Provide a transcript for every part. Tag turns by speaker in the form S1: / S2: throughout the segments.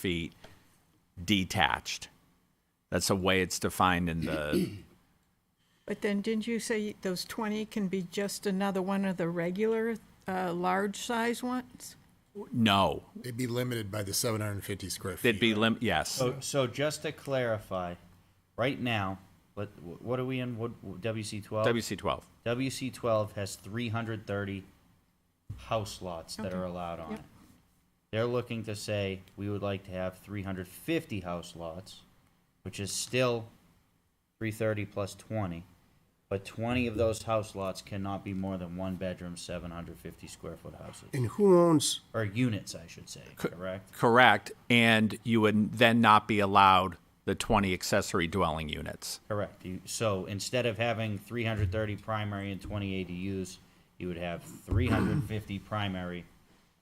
S1: feet detached. That's the way it's defined in the,
S2: But then, didn't you say those 20 can be just another one of the regular, uh, large-size ones?
S1: no,
S3: They'd be limited by the 750 square feet.
S1: it'd be lim, yes.
S4: So, so just to clarify, right now, what, what are we in, what, WC twelve?
S1: WC twelve.
S4: WC twelve has three hundred thirty house lots that are allowed on it. They're looking to say, we would like to have three hundred fifty house lots, which is still three thirty plus twenty. But twenty of those house lots cannot be more than one bedroom, seven hundred fifty square foot houses,
S5: And who owns,
S4: or units, I should say, correct?
S1: Correct, and you would then not be allowed the twenty accessory dwelling units.
S4: Correct. You- So instead of having three hundred thirty primary and twenty ADUs, you would have three hundred and fifty primary,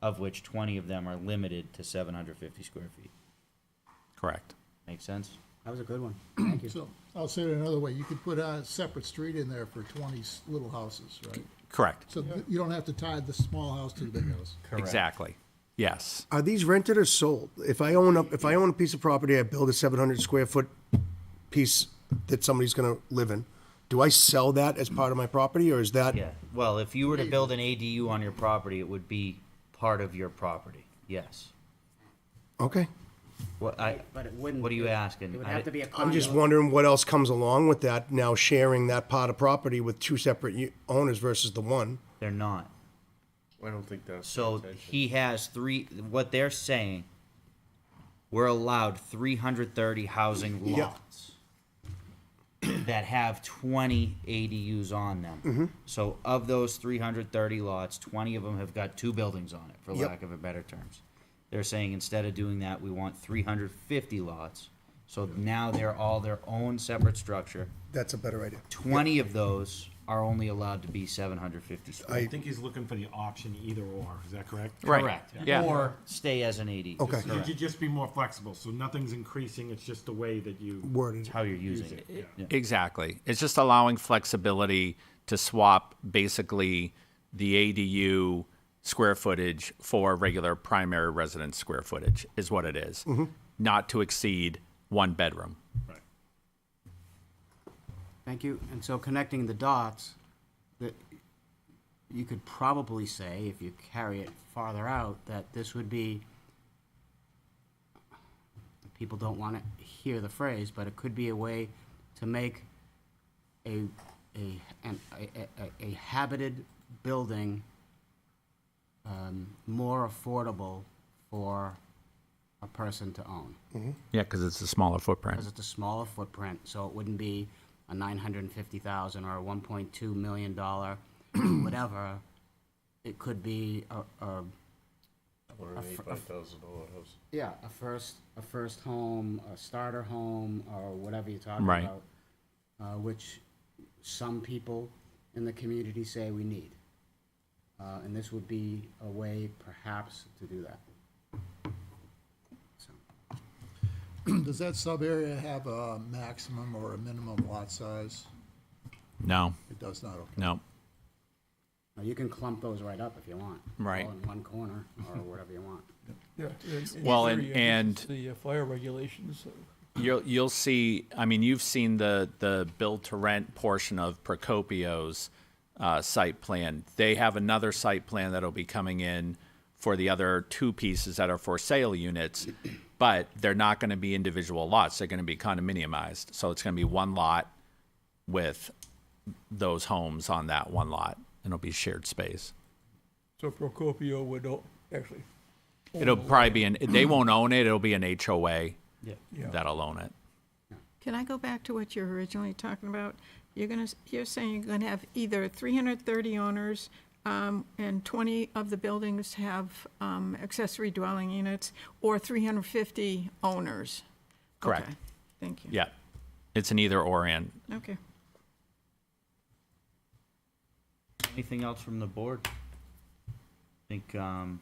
S4: of which twenty of them are limited to seven hundred fifty square feet.
S1: Correct.
S4: Make sense?
S5: that was a good one, thank you.
S6: So I'll say it another way. You could put a separate street in there for twenty s- little houses, right?
S1: Correct,
S6: So th- you don't have to tie the small house to the big house.
S1: exactly. Yes,
S5: Are these rented or sold? If I own a, if I own a piece of property, I build a seven hundred square foot piece that somebody's gonna live in, do I sell that as part of my property, or is that?
S4: Yeah. Well, if you were to build an ADU on your property, it would be part of your property. Yes.
S5: Okay,
S4: What I,
S7: But it wouldn't.
S4: what are you
S7: be-
S4: asking?
S7: It would
S4: I
S7: have to
S4: di-
S7: be a condo.
S5: I'm just wondering what else comes along with that, now sharing that part of property with two separate u- owners versus the one.
S4: They're not.
S8: I don't think that's.
S4: So he has three, what they're saying, we're allowed three hundred thirty housing
S5: Yeah.
S4: lots that have twenty ADUs on them.
S5: Mm-hmm.
S4: So of those three hundred thirty lots, twenty of them have got two buildings on it, for
S5: Yep.
S4: lack of a better terms. They're saying instead of doing that, we want three hundred fifty lots, so now they're all their own separate structure.
S5: That's a better idea.
S4: Twenty of those are only allowed to be seven hundred fifty square.
S9: I think he's looking for the option either or, is that correct?
S1: right.
S4: Correct.
S1: Yeah.
S4: Or stay as an ADU.
S5: Okay.
S9: You could just be more flexible, so nothing's increasing, it's just the way that you.
S5: Worded.
S4: How you're using it.
S1: Exactly. It's just allowing flexibility to swap basically the ADU square footage for regular primary residence square footage is what it is. Not to exceed one bedroom.
S7: Thank you. And so connecting the dots, that you could probably say, if you carry it farther out, that this would be, people don't want to hear the phrase, but it could be a way to make a, a, an, a, a- a habited building um, more affordable for a person to own.
S1: Yeah, because it's a smaller footprint.
S7: because it's a smaller footprint, so it wouldn't be a nine hundred and fifty thousand or a one point two million dollar, whatever. It could be a, a,
S8: Or an eighty-five thousand dollar house.
S7: yeah, a first, a first home, a starter home, or whatever you're talking
S1: Right.
S7: about. Uh, which some people in the community say we need. Uh, and this would be a way perhaps to do that. So,
S6: Does that sub area have a maximum or a minimum lot size?
S1: No,
S6: It does not, okay.
S1: no.
S7: now you can clump those right up if you want.
S1: Right.
S7: All in one corner, or whatever you want.
S10: Yeah, in- in
S1: Well, and-
S10: theory, it meets
S1: and-
S10: The uh, fire regulations. uh,
S1: You'll, you'll see, I mean, you've seen the, the build to rent portion of Procopio's uh, site plan. They have another site plan that'll be coming in for the other two pieces that are for sale units, but they're not going to be individual lots. They're going to be condominiumized. So it's going to be one lot with those homes on that one lot. and It'll be shared space.
S10: So Procopio would o- actually,
S1: It'll probably be an, they won't own it. It'll be an HOA
S10: yeah.
S1: that'll own it.
S2: Can I go back to what you were originally talking about? You're gonna, you're saying you're gonna have either 330 owners, um, and 20 of the buildings have um, accessory dwelling units, or 350 owners?
S1: Correct.
S2: Okay, Thank you.
S1: Yeah. It's an either or and
S2: Okay.
S4: Anything else from the board? I think, um,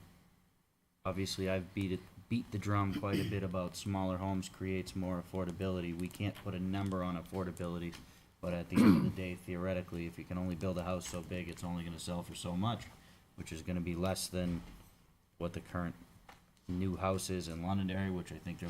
S4: obviously I've beat it, beat the drum quite a bit about smaller homes creates more affordability. We can't put a number on affordability, but at the end of the day theoretically, if you can only build a house so big, it's only gonna sell for so much, which is gonna be less than what the current new houses in Londonderry, which I think they're